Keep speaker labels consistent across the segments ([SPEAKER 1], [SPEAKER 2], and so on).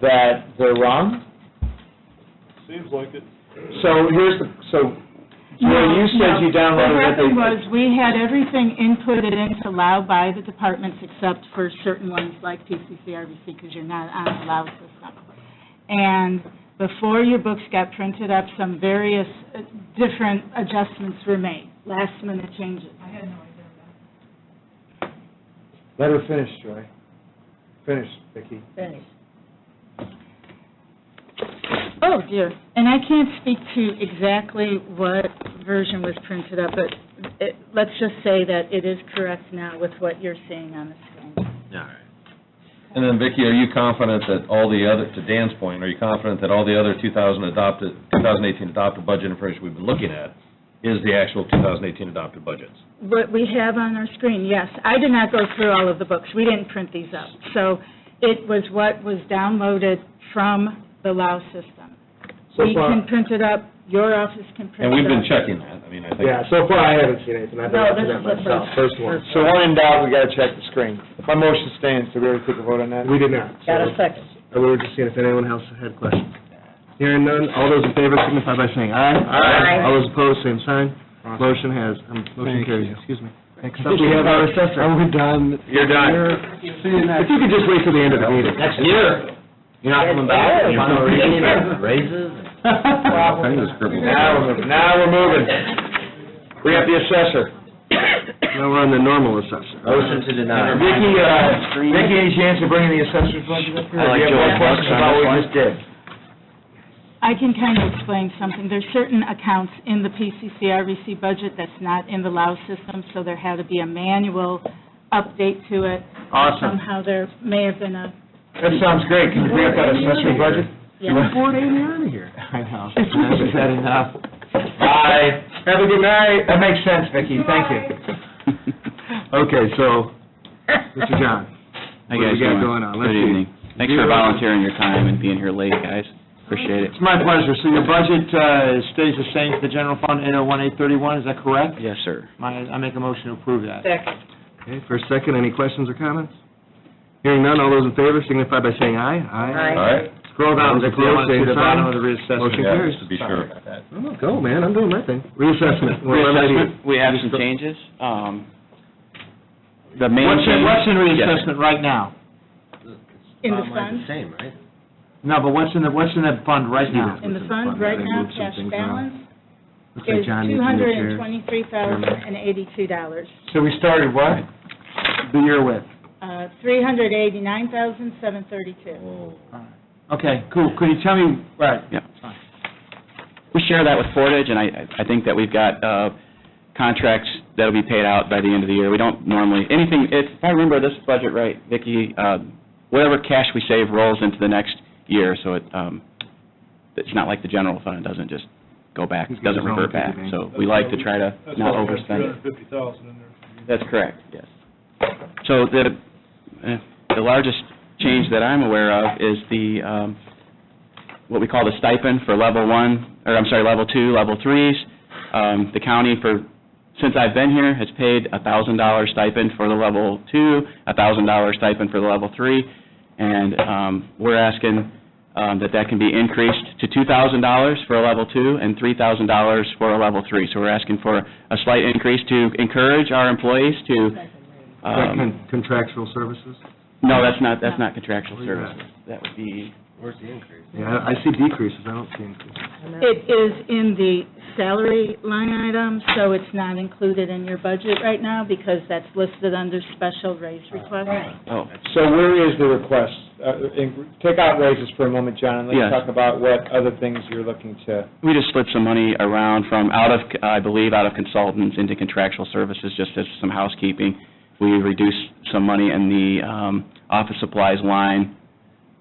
[SPEAKER 1] that they're wrong?
[SPEAKER 2] Seems like it.
[SPEAKER 1] So here's the, so, Roy, you said you downloaded what they...
[SPEAKER 3] What happened was, we had everything inputted into Lao by the departments except for certain ones like PCCRBC, because you're not on the Lao system. And before your books got printed up, some various uh, different adjustments were made, last-minute changes.
[SPEAKER 1] Let her finish, Joy. Finish, Vicki.
[SPEAKER 3] Finish. Oh, dear. And I can't speak to exactly what version was printed up, but it, let's just say that it is correct now with what you're seeing on the screen.
[SPEAKER 4] All right. And then Vicki, are you confident that all the other, to Dan's point, are you confident that all the other 2000 adopted, 2018 adopted budget information we've been looking at is the actual 2018 adopted budgets?
[SPEAKER 3] What we have on our screen, yes. I did not go through all of the books. We didn't print these up. So it was what was downloaded from the LAO system.
[SPEAKER 1] So
[SPEAKER 3] We
[SPEAKER 1] far-
[SPEAKER 3] can print it up, your office can print it
[SPEAKER 4] And
[SPEAKER 3] up.
[SPEAKER 4] we've been checking that, I mean, I think.
[SPEAKER 1] Yeah, so far I haven't seen anything, I've been
[SPEAKER 5] No,
[SPEAKER 1] watching
[SPEAKER 5] this
[SPEAKER 1] that
[SPEAKER 5] is the
[SPEAKER 1] myself,
[SPEAKER 5] first-
[SPEAKER 1] first one.
[SPEAKER 5] first
[SPEAKER 1] So when in doubt, we gotta check the screen. My motion stands, did we already take a vote on that? We did not.
[SPEAKER 5] Got a second.
[SPEAKER 6] uh,
[SPEAKER 1] We were just seeing if anyone else had questions.
[SPEAKER 6] Hearing none, all those in favor signify by saying aye.
[SPEAKER 5] Aye.
[SPEAKER 6] All those opposed, same sign. Motion has, um, motion
[SPEAKER 1] Thank
[SPEAKER 6] carries,
[SPEAKER 1] you.
[SPEAKER 6] excuse me. Next up, we have our assessor. Are we done?
[SPEAKER 1] You're done.
[SPEAKER 6] If you could just wait till the end of the meeting.
[SPEAKER 1] Next year. You're not coming back?
[SPEAKER 5] Yes, sir.
[SPEAKER 1] Raises?
[SPEAKER 4] I just scribbled.
[SPEAKER 1] Now, we're moving. now we're moving. We have the assessor.
[SPEAKER 6] Now we're on the normal assessor.
[SPEAKER 1] Motion to deny. Vicki, uh, Vicki, any chance of bringing the assessor's budget up here?
[SPEAKER 5] I like
[SPEAKER 1] Do you have
[SPEAKER 5] Joe's
[SPEAKER 1] more questions about what we just did?
[SPEAKER 3] I can kind of explain something. There's certain accounts in the PCCRVC E budget that's not in the LAO system, so there had to be a manual update to it.
[SPEAKER 1] Awesome.
[SPEAKER 3] Somehow there may have been a,
[SPEAKER 1] That sounds great. Can you bring up that assessor's budget?
[SPEAKER 3] yeah.
[SPEAKER 6] Four days out of here. I know.
[SPEAKER 1] Is that enough? Bye. Have a good night. That makes sense, Vicki. Thank you.
[SPEAKER 6] Okay, so, Mr. John, What
[SPEAKER 7] Hi,
[SPEAKER 6] do
[SPEAKER 7] guys.
[SPEAKER 6] we got
[SPEAKER 7] doing?
[SPEAKER 6] going on? Let's
[SPEAKER 7] Good
[SPEAKER 6] see.
[SPEAKER 7] evening. Thanks
[SPEAKER 6] Zero.
[SPEAKER 7] for volunteering your time and being here late, guys. Appreciate it.
[SPEAKER 6] it's my pleasure. So your budget uh, stays the same for the general fund, 801831, is that correct?
[SPEAKER 7] Yes, sir.
[SPEAKER 6] My- I make a motion to approve that.
[SPEAKER 5] Second.
[SPEAKER 6] Okay, for a second, any questions or comments? Hearing none, all those in favor signify by saying aye.
[SPEAKER 5] Aye.
[SPEAKER 4] All right.
[SPEAKER 6] Scroll down to the close, same
[SPEAKER 4] the bottom of the
[SPEAKER 6] sign.
[SPEAKER 4] reassessment.
[SPEAKER 6] Motion
[SPEAKER 4] Yeah,
[SPEAKER 6] carries.
[SPEAKER 4] just To be sure about that.
[SPEAKER 6] I'm gonna go, man, I'm doing my thing. Reassessment. We're eliminating-
[SPEAKER 7] Reassessment, we have some changes. Um, The main
[SPEAKER 6] What's in,
[SPEAKER 7] change-
[SPEAKER 6] what's in
[SPEAKER 7] Yes, sir.
[SPEAKER 6] reassessment right now?
[SPEAKER 3] In the fund,
[SPEAKER 1] same, right?
[SPEAKER 6] No, but what's in the, what's in that fund right now?
[SPEAKER 3] in the fund, right now, cash balance
[SPEAKER 6] Looks like
[SPEAKER 3] is
[SPEAKER 6] John needs a new chair.
[SPEAKER 3] $223,082.
[SPEAKER 1] So we started what?
[SPEAKER 6] The year with.
[SPEAKER 3] Uh, 389,732.
[SPEAKER 6] Okay, cool. Could you tell me, right,
[SPEAKER 7] We share that with Portage, and I, I think that we've got uh, contracts that'll be paid out by the end of the year. We don't normally, anything, if I remember this budget right, Vicki, uh, whatever cash we save rolls into the next year, so it, um, it's not like the general fund, it doesn't just go back,
[SPEAKER 6] He's
[SPEAKER 7] it
[SPEAKER 6] got
[SPEAKER 7] doesn't
[SPEAKER 6] his own
[SPEAKER 7] revert back.
[SPEAKER 6] piggy bank.
[SPEAKER 7] So we like to try to not overspend
[SPEAKER 2] Three hundred and
[SPEAKER 7] it.
[SPEAKER 2] fifty thousand in there.
[SPEAKER 7] That's correct, yes. So the, eh, the largest change that I'm aware of is the, um, what we call the stipend for level one, or I'm sorry, level two, level threes. Um, The county for, since I've been here, has paid a thousand dollar stipend for the level two, a thousand dollar stipend for the level three, and um, we're asking um, that that can be increased to two thousand dollars for a level two and three thousand dollars for a level three. So we're asking for a slight increase to encourage our employees to,
[SPEAKER 6] Is that
[SPEAKER 7] um,
[SPEAKER 6] con- contractual services?
[SPEAKER 7] no, that's not, that's not contractual
[SPEAKER 6] Where's that?
[SPEAKER 7] services. That would be,
[SPEAKER 6] Yeah, I I see decreases, I don't see increases.
[SPEAKER 3] It is in the salary line item, so it's not included in your budget right now because that's listed under special raise request.
[SPEAKER 7] oh,
[SPEAKER 1] So where is the request? Uh, in- Take out raises for a moment, John, and let's
[SPEAKER 7] Yes.
[SPEAKER 1] talk about what other things you're looking to.
[SPEAKER 7] we just slid some money around from out of, I believe, out of consultants into contractual services, just as some housekeeping. We reduced some money in the um, office supplies line.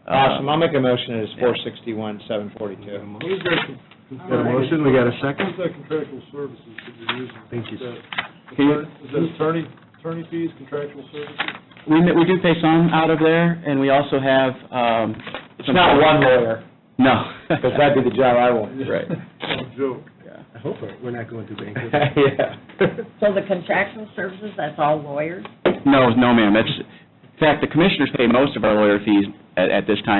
[SPEAKER 7] Uh,
[SPEAKER 1] Awesome, I'll make a motion, it is four sixty-one, seven forty-two.
[SPEAKER 2] Who's
[SPEAKER 6] Got a motion, we got a second?
[SPEAKER 2] that contractual services that you're using?
[SPEAKER 6] Thank you.
[SPEAKER 2] Is that- Is that attorney, attorney fees, contractual services?
[SPEAKER 7] We we do pay some out of there, and we also have um,
[SPEAKER 1] It's not one lawyer,
[SPEAKER 7] No.
[SPEAKER 1] because that'd be the job I want.
[SPEAKER 7] Right.
[SPEAKER 2] No Oh, joke.
[SPEAKER 6] I hope we're not going to bank.
[SPEAKER 1] Yeah.
[SPEAKER 5] So the contractual services, that's all lawyers?
[SPEAKER 7] No, no, ma'am. It's, in fact, the commissioners pay most of our lawyer fees at at this time,